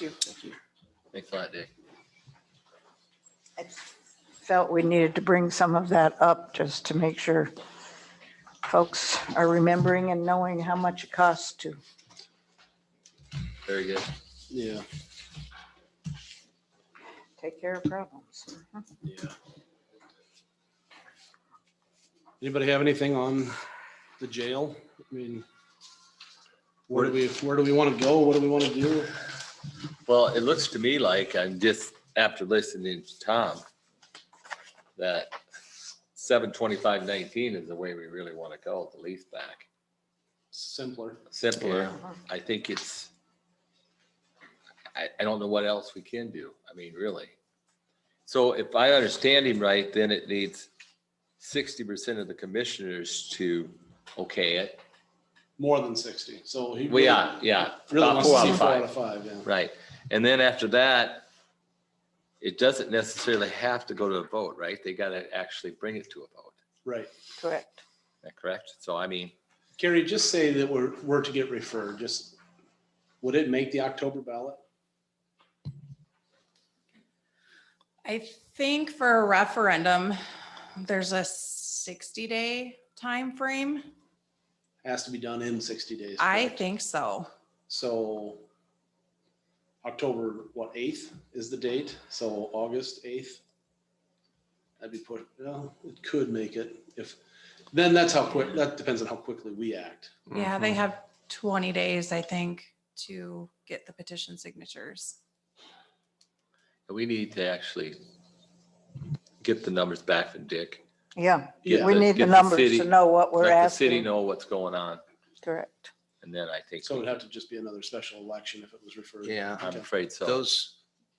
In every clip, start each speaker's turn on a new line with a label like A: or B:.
A: you.
B: Thanks a lot, Dick.
A: I Felt we needed to bring some of that up just to make sure folks are remembering and knowing how much it costs to.
B: Very good.
C: Yeah,
A: take care of problems. Mm-hmm.
C: yeah. Anybody have anything on the jail? I mean, where do we, where do we want to go? What do we want to do?
B: Well, it looks to me like I'm just, after listening to Tom, that seven twenty-five nineteen is the way we really want to go, the lease back.
C: Simpler.
B: Simpler, I think it's, I, I don't know what else we can do. I mean, really. So if I understand him right, then it needs sixty percent of the commissioners to okay it.
C: More than sixty, so he.
B: Well, yeah, yeah.
C: Really
B: about
C: wants
B: four
C: to
B: out
C: see
B: of
C: four
B: five.
C: out of five, yeah.
B: Right. And then after that, it doesn't necessarily have to go to a vote, right? They got to actually bring it to a vote.
C: Right.
A: Correct.
B: Is that correct? So I mean,
C: Carrie, just say that we're, we're to get referred, just, would it make the October ballot?
D: I think for a referendum, there's a sixty day time frame.
C: Has to be done in sixty days.
D: I
C: correct?
D: think so.
C: So October, what, eighth is the date? So August eighth? That'd be put, well, it could make it if, then that's how quick, that depends on how quickly we act.
D: Yeah, they have twenty days, I think, to get the petition signatures.
B: Mm-hmm. we need to actually get the numbers back from Dick.
A: Yeah,
C: Yeah.
A: we
B: the-
A: need the
B: get the
A: numbers
B: city-
A: to know what we're
B: Let the city
A: asking.
B: know what's going on.
A: Correct.
B: And then I think,
C: So it'd have to just be another special election if it was referred.
E: Yeah.
B: I'm
C: Okay.
B: afraid so.
E: Those,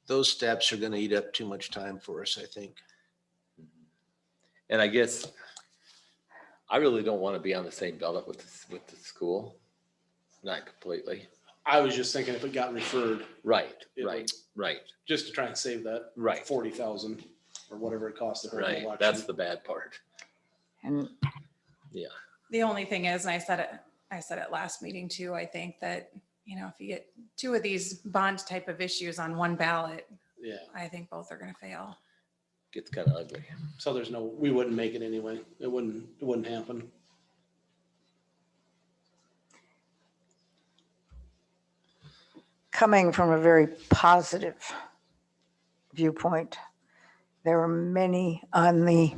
E: those steps are going to eat up too much time for us, I think.
B: And I guess I really don't want to be on the same ballot with, this- with the school. Not completely.
C: I was just thinking if it got referred,
B: Right,
C: It would-
B: right, right,
C: just to try and save that
B: right,
C: forty thousand or whatever it cost to hold an
B: right.
C: election.
B: That's the bad part.
A: And
D: The only thing is, and I said it, I said it last meeting too, I think that, you know, if you get two of these bond type of issues on one ballot,
C: Yeah,
D: I think both are gonna fail.
B: Gets kind of ugly.
C: so there's no, we wouldn't make it anyway. It wouldn't, it wouldn't happen.
A: coming from a very positive viewpoint, there were many on the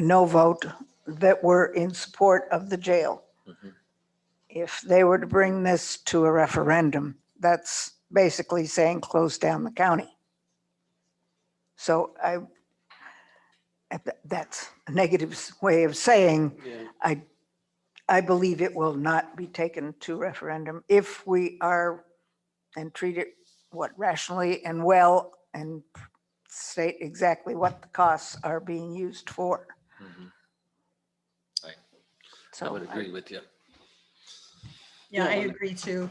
A: no vote that were in support of the jail.
B: Mhm.
A: If they were to bring this to a referendum, that's basically saying close down the county. So I, that's a negative way of saying
C: Yeah.
A: I believe it will not be taken to referendum if we are and treat it, what, rationally and well and state exactly what the costs are being used for.
C: Mm-hmm.
B: Mhm. I
A: So
B: would
A: Oh, I-
B: agree with you.
F: Yeah, I
C: Yeah.
F: agree too.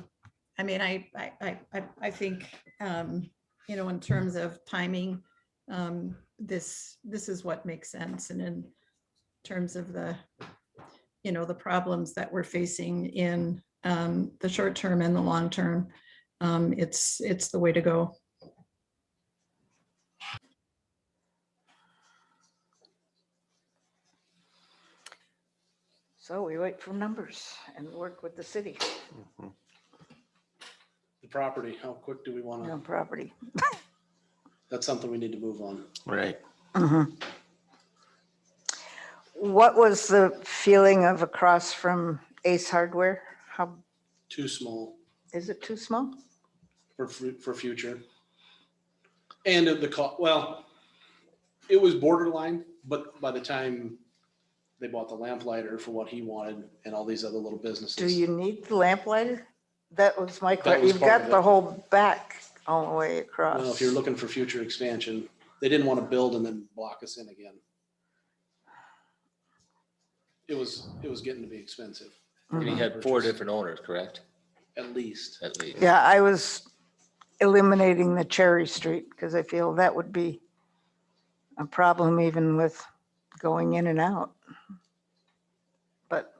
F: I mean, I, I, I, I, I think, um, you know, in terms of timing, um, this, this is what makes sense. And in terms of the, you know, the problems that we're facing in, um, the short term and the long term, um, it's, it's the way to go.
A: so we wait for numbers and work with the city
C: The property, how quick do we want to,
A: on property.
C: that's something we need to move on.
E: Right.
A: Mhm. What was the feeling of across from Ace Hardware? How,
C: Too small
A: is it too small?
C: for, fu- for future. And of the cost, well, it was borderline, but by the time they bought the lamplighter for what he wanted and all these other little businesses.
A: Do you need the lamplighter? That was my
C: That
A: question.
C: was
A: You've
C: part
A: got
C: of
A: the
C: it.
A: whole back all the way
C: Well,
A: across.
C: if you're looking for future expansion, they didn't want to build and then block us in again. It was, it was getting to be expensive,
B: And he
A: Mhm.
B: had four different owners, correct?
C: at least.
B: At least.
A: Yeah, I was eliminating the Cherry Street because I feel that would be a problem even with going in and out. But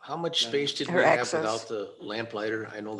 E: How much
C: Yeah.
E: space did we
A: Or
E: have
A: access.
E: without the lamplighter? I know